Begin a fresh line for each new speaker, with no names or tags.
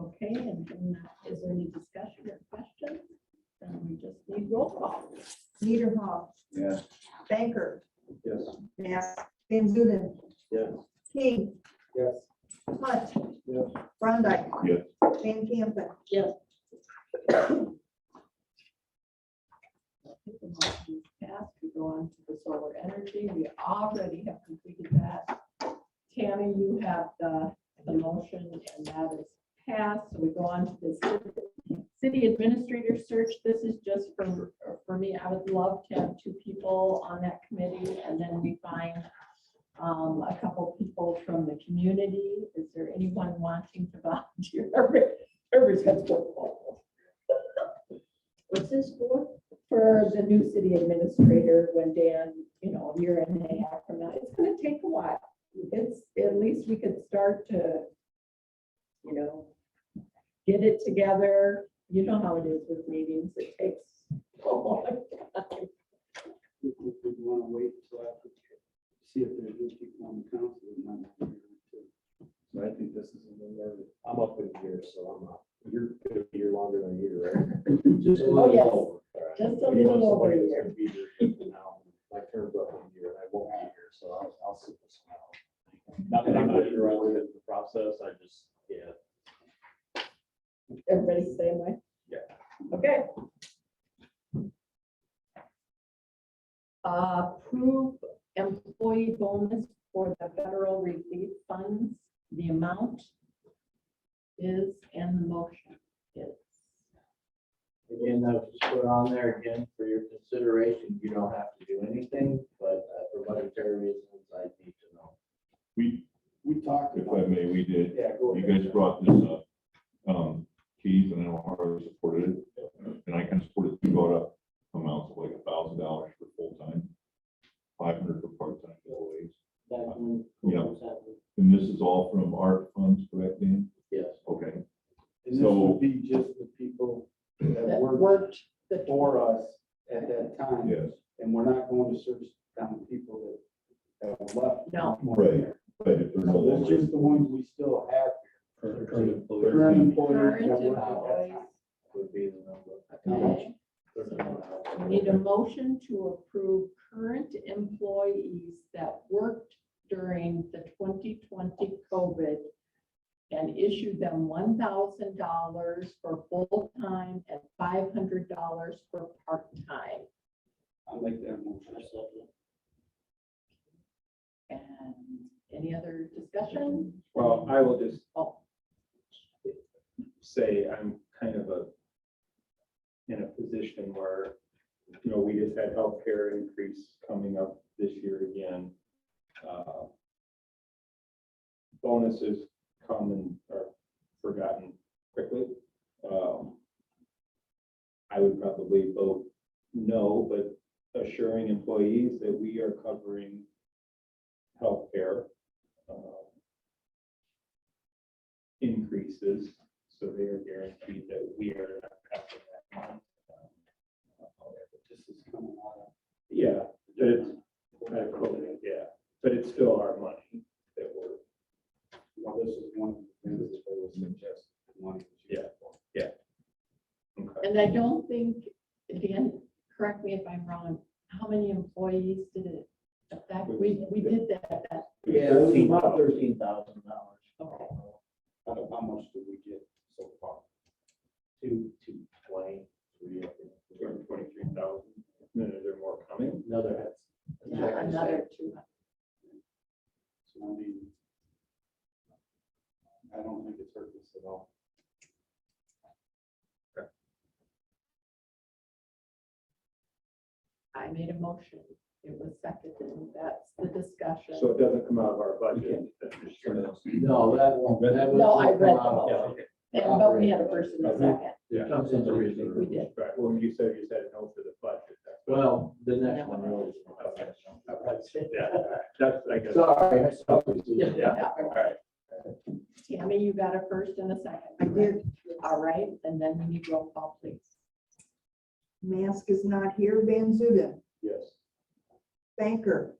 Okay, and then is there any discussion or questions? Then we just need roll call.
Hall,
Yes.
Banker,
Yes.
Mass, Van Zuiden,
Yes.
King,
Yes.
Hunt,
Yes.
Brondike.
Yes.
Van Campen,
If the motion is Passed, we go on to the solar energy. We already have completed that. Tammy, you have the, the motion and that is passed. So we go on to the city- city administrator search. This is just for, for me. I would love to have two people on that committee and then we find um, a couple people from the community. Is there anyone wanting to volunteer? Everybody's got to go. What's this for? For the new city administrator, when Dan, you know, a year and a half from now, it's gonna take a while. It's, at least we could start to, you know, get it together. You know how it is with meetings, it takes. a long time.
If we want to wait until after, see if there's new people on the council. and not-
So I think this is a little.
I'm up in here, so I'm up. You're gonna be here longer than a year, right?
Just
Oh,
let-
yes.
All right.
Just a
You know,
little over a
somebody that's
year.
gonna be here fifty now, My term's up in a year and I won't be here, so I'll, I'll sit this one out. Not that I'm not interrupted in the process, I just, yeah,
Everybody's the same way?
Yeah.
Okay. Approve employee bonus for the federal relief funds, the amount is in the motion. Is
Again, that was just put on there again for your consideration. You don't have to do anything, but uh, for budgetary reasons, I need to know.
We,
We talked
if
about.
I may, we did,
Yeah, go
you
ahead.
guys brought this up, um, Keys and I know Harley supported it, and I kind of supported, it. we brought up amounts of like a thousand dollars for full-time, five hundred for part-time employees.
That one,
Yeah.
what's happening?
And this is all from art funds, correct, Dan?
Yes.
Okay,
And this would be just the people that
That
worked
worked the
for us at that time.
yes,
And we're not going to search down people that, that were left.
No.
Right. but if there's no
So that's
longer,
just the ones we still have.
current employees.
Current employees
current
that work at that
employees.
time.
Would be the number.
Okay,
Put it
we
on.
need a motion to approve current employees that worked during the twenty twenty COVID and issue them one thousand dollars for full-time and five hundred dollars for part-time.
I like that motion.
And any other discussion?
Well, I will just
Oh,
say I'm kind of a, in a position where, you know, we just had healthcare increase coming up this year again. Uh, Bonuses come and are forgotten quickly. Um, I would probably vote no, but assuring employees that we are covering healthcare uh, increases so they are guaranteed that we are not covering that month.
This is coming out
Yeah, but
of.
it's, I quote it, yeah, but it's still our money that we're,
Well, this is one of the things that they would suggest. one.
Yeah. okay.
And I don't think, Dan, correct me if I'm wrong, how many employees did it affect? We, we did that, that,
Yeah, it was about thirteen thousand dollars.
okay.
How, how much did we get so far?
Two, two, twenty, three, I
Two
think.
hundred twenty-three thousand, no, no, there are more coming.
Another. head.
Yeah, Another two
So I mean, I don't think it's hurt us at all.
I made a motion. It was seconded. That's the discussion.
So it doesn't come out of our budget. that's just sort of-
No, that won't, that would.
No, I read the
Yeah,
Wow.
okay,
And- But we had a first and a second.
It comes in the reason.
We did.
Right, well, you said you said no for the budget. that's-
Well, the next one really.
Yeah, that's, I guess.
Sorry. I saw it.
Yeah, all right.
Tammy, you got a first and a second.
I did,
All right, and then we need roll call, please.
Mask is not here, Van Zuiden,
Yes.
Banker,